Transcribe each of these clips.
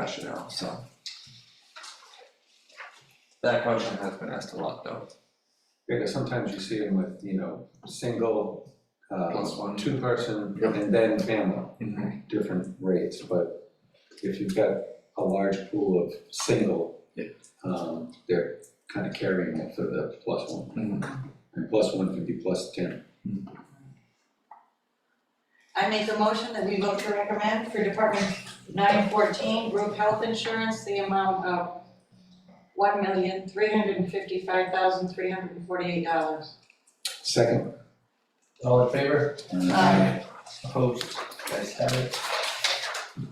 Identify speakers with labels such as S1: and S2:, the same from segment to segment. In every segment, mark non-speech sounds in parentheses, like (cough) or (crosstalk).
S1: rationale, so. That question has been asked a lot though,
S2: Because sometimes you see them with, you know, single, uh,
S1: plus one.
S2: two person
S1: Yep.
S2: and then family,
S1: Mhm.
S2: different rates, but if you've got a large pool of single,
S1: Yeah.
S2: um, they're kind of carrying it for the plus one, and plus one can be plus ten.
S3: I make a motion that we vote to recommend for Department nine fourteen, group health insurance, the amount of one million, three hundred and fifty-five thousand, three hundred and forty-eight dollars.
S2: Second,
S4: All in favor?
S3: Aye.
S4: Opposed? Guys have it.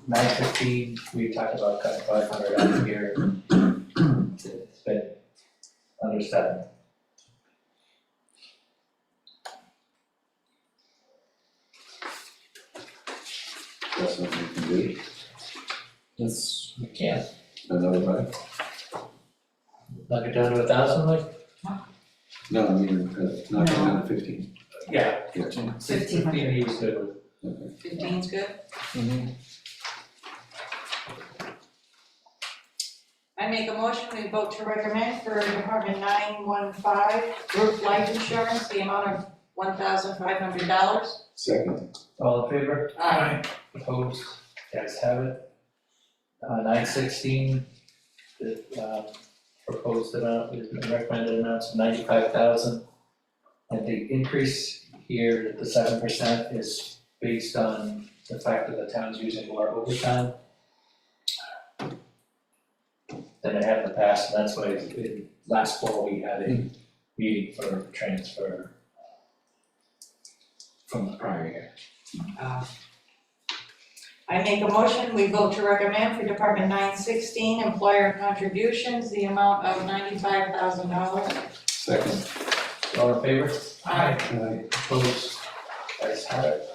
S4: Nine fifteen, we talked about cutting five hundred out of here. It's been under seven.
S2: that's something you can do,
S4: Yes. We can't,
S2: another five,
S4: knock it down to a thousand, like?
S2: no, I mean, uh, not down to fifteen.
S4: Yeah.
S1: Fifteen.
S3: Fifteen
S4: Fifteen he was good with.
S2: Okay.
S3: Fifteen's good.
S1: Mhm.
S3: I make a motion, we vote to recommend for Department nine one five, group life insurance, the amount of one thousand, five hundred dollars.
S2: Second,
S4: All in favor? Opposed? Guys have it. Uh, nine sixteen, the, uh, proposed amount, is- recommended amount of ninety-five thousand. And the increase here, the seven percent, is based on the fact that the town's using more overtime than it had in the past, and that's why, it- it- last fall, we had a meeting for transfer from the prior year.
S3: Uh, I make a motion, we vote to recommend for Department nine sixteen, employer contributions, the amount of ninety-five thousand dollars.
S2: second,
S4: All in favor?
S3: Aye.
S2: aye,
S4: Opposed, ayes have it.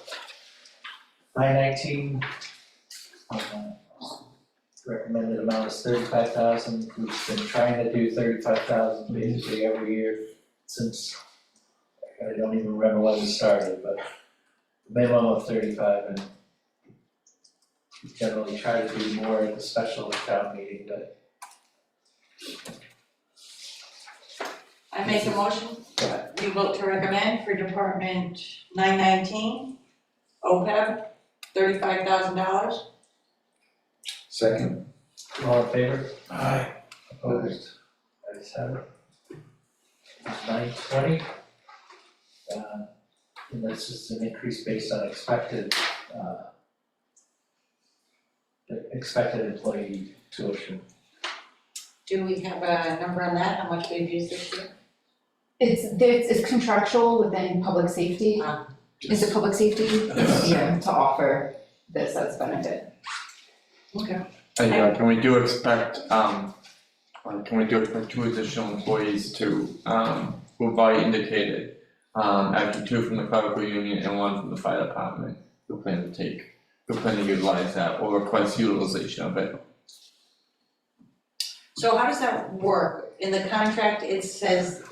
S4: Nine nineteen. Recommended amount is thirty-five thousand, we've been trying to do thirty-five thousand basically every year since, I don't even remember when we started, but minimum of thirty-five and generally try to do more at the special town meeting, but
S3: I make a motion,
S4: go ahead.
S3: we vote to recommend for Department nine nineteen, OPEB, thirty-five thousand dollars.
S2: second,
S4: All in favor?
S1: Aye.
S4: Opposed? Ayes have it. Nine twenty. Uh, and that's just an increase based on expected, uh, the expected employee tuition.
S3: Do we have a number on that, how much we've used this year?
S5: It's, it's it's contractual within public safety.
S3: Ah.
S5: Is it public safety?
S1: Yes.
S5: Yeah, to offer this as benefit.
S3: Okay.
S1: Uh, yeah, can we do expect, um, uh, can we do expect two additional employees to, um, who've already indicated? Um, actually two from the clerical union and one from the fire department who plan to take, who plan to utilize that or request utilization of it.
S3: So how does that work? In the contract, it says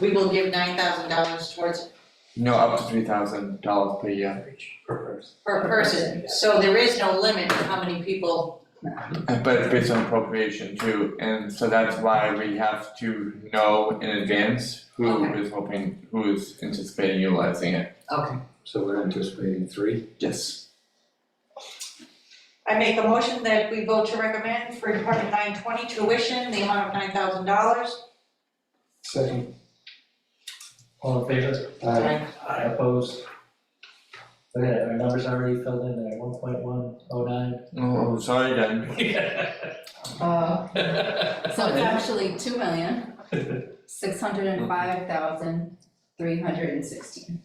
S3: we will give nine thousand dollars towards
S1: No, up to three thousand dollars per year.
S3: per person. So there is no limit to how many people,
S1: But it's based on appropriation too, and so that's why we have to know in advance who
S3: Okay.
S1: is hoping, who is anticipating utilizing it.
S3: okay.
S2: so we're anticipating three,
S1: Yes.
S3: I make a motion that we vote to recommend for Department nine twenty tuition, the amount of nine thousand dollars.
S2: second,
S4: All in favor?
S2: aye.
S4: Aye. Opposed? Look at that, our numbers already filled in there, one point one oh nine. (laughs)
S1: Oh, sorry, Dan.
S5: Uh, so it's
S4: Yeah.
S5: actually two million, six hundred and five thousand, three hundred and sixteen.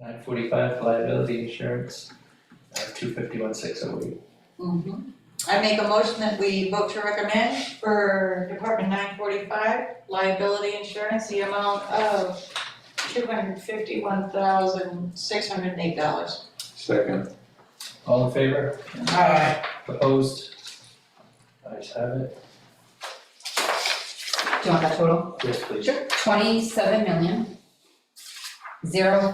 S4: Nine forty-five liability insurance, uh, two fifty-one six oh eight.
S3: Mhm. I make a motion that we vote to recommend for Department nine forty-five liability insurance, the amount of two hundred fifty-one thousand, six hundred and eight dollars.
S2: Second,
S4: All in favor? Opposed? Ayes have it.
S5: Do you want that total?
S4: Yes, please.
S5: Twenty-seven million, zero